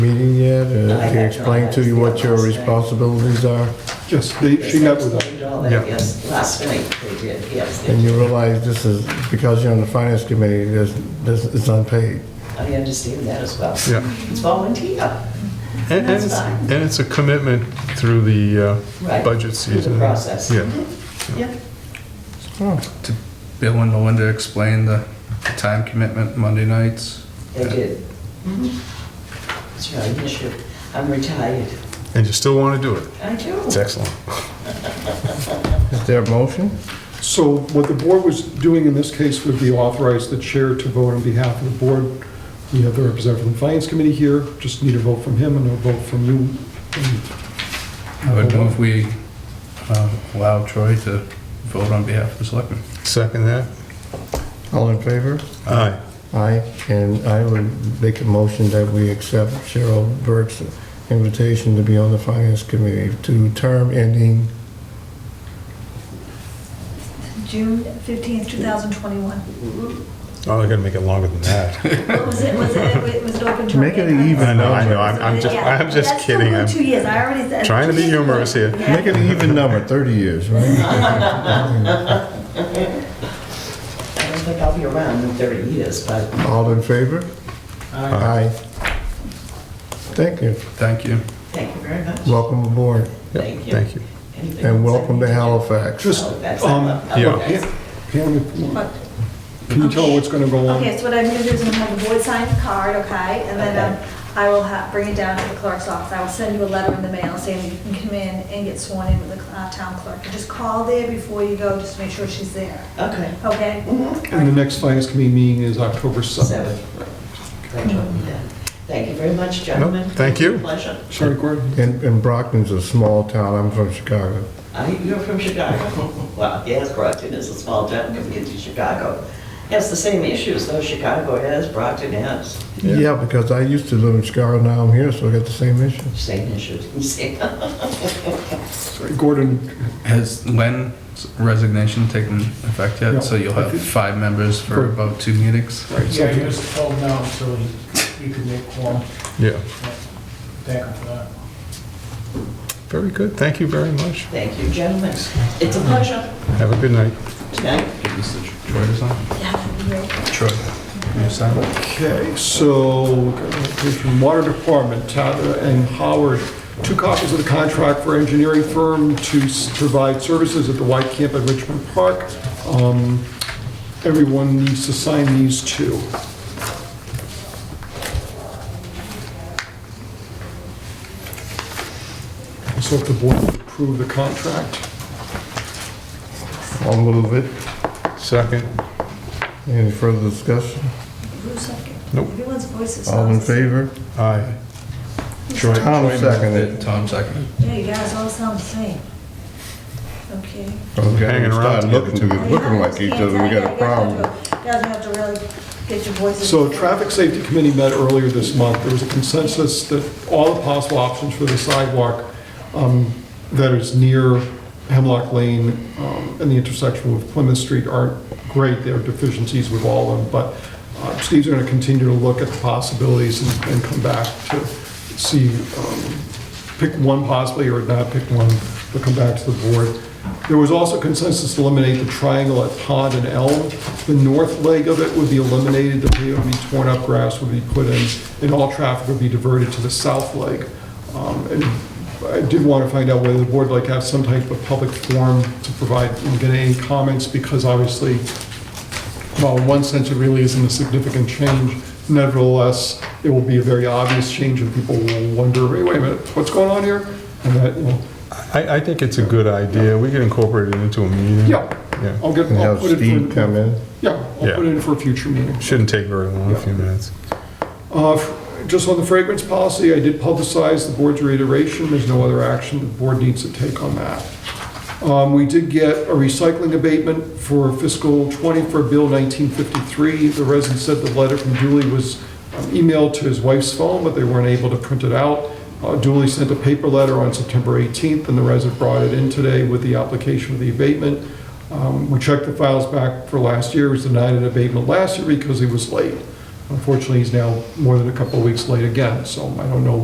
that? Uh, She explained to you what your responsibilities are? Yes, they, she met with us. Explained all that, Yeah. Yes, last night they did, yes. And they- you realize this is, because you're on the finance committee, this, this is unpaid. I understand that as well. Yeah. It's volunteer. And, and, That's it's, fine. and it's a commitment through the uh, Right, budget through the season. process. Mm-hmm. Yeah. Yeah. Oh. Bill and Melinda explained the the time commitment Monday nights. They did. It's not an issue. I'm retired. And you still want to do it. I do. It's excellent. Is there a motion? So what the board was doing in this case would be authorize the chair to vote on behalf of the board. We have the representative from the finance committee here, just need a vote from him and a vote from you. I would move we um, allow Troy to vote on behalf of the selectmen. Second that? All in favor? Aye. Aye, and I would make a motion that we accept Cheryl Burke's invitation to be on the finance committee to term ending, June 15th, 2021. Oh, they're going to make it longer than that. What was it, was it, was it open to? Make it even. I know, I know. I'm, I'm just, Yeah. I'm just That's still kidding. only I'm two years, I already said. trying to be humorous here. Yeah. make it an even number, 30 years, right? I don't think I'll be around in 30 years, but All in favor? Aye. Thank you. Thank you. thank you very much. Welcome aboard, Yep, Thank you. Thank you. Anything and else I welcome need to Halifax. Just, Oh, that's- um, okay. yeah. Pam, What? can you tell what's going to go on? Okay, so what I'm gonna do is I'm gonna have the board sign the card, okay? And then um, I will ha bring it down to the clerk's office. I will send you a letter in the mail saying you can come in and get sworn in with the uh, town clerk. Just call there before you go, just to make sure she's there, Okay. okay? Mm-hmm. And the next finance committee meeting is October 7th. Seven. Thank you. Thank you very much, No, gentlemen. thank you. Pleasure. Sorry, Gordon? And and Brockton's a small town, I'm from Chicago. I, you're from Chicago. Well, yes, Brockton is a small town compared to Chicago. Has the same issues though Chicago has, Brockton has. Yeah. Yeah, because I used to live in Chicago, now I'm here, so I got the same issue. Same issues. Sorry, Gordon, Has Len's resignation taken effect No. yet? So you'll have five members for Correct. about two meetings? Yeah, he was told no, so he, he could make one. Yeah. Thank him for that. Very good. Thank you very much. Thank you, gentlemen. It's a pleasure. Have a good night. Good night. Get this to Troy to sign? Yeah. Troy. Can you sign it? Okay, so, from Water Department, Tata and Howard, two copies of the contract for engineering firm to s- provide services at the Y Camp at Richmond Park. Um, Everyone needs to sign these two. So if the board would approve the contract. I'll move it. Second. Any further discussion? Who's second? Nope. Everyone's voice is. All in favor? Aye. Troy. Tom Troy seconded. moved it. Tom seconded. Yeah, you guys all sound the same. Okay. Oh, Okay, Hanging start around together, Looking too. looking like each other, we got a problem. You guys have to really get your voices. So Traffic Safety Committee met earlier this month. There was a consensus that all the possible options for the sidewalk um, that is near Hemlock Lane um, and the intersection with Plymouth Street aren't great. There are deficiencies with all of them, but uh, Steve's going to continue to look at the possibilities and- and come back to see, um, pick one possibly or not pick one, but come back to the board. There was also consensus to eliminate the triangle at Pond and Elm. The north leg of it would be eliminated, the pavement would be torn up, grass would be put in, and all traffic would be diverted to the south leg. Um, And I did want to find out whether the board would like to have some type of public forum to provide, and get any comments, because obviously, well, in one sense, it really isn't a significant change. Nevertheless, it will be a very obvious change, and people will wonder, "Hey, wait a minute, what's going on here? And that, you know, I, I think it's a good idea. We can incorporate it into a meeting. yeah, Yeah. I'll get, And I'll have put it Steve for, come in. yeah, Yeah. I'll put it in for a future meeting. Shouldn't take very long, a few minutes. Uh, f- Just on the fragrance policy, I did publicize the board's reiteration, there's no other action the board needs to take on that. Um, We did get a recycling abatement for fiscal '20 for Bill 1953. The resident said the letter from Dooley was um, emailed to his wife's phone, but they weren't able to print it out. Uh, Dooley sent a paper letter on September 18th, and the resident brought it in today with the application of the abatement. Um, We checked the files back for last year, He was denied an abatement last year because he was late. Unfortunately, he's now more than a couple of weeks late again, so I don't know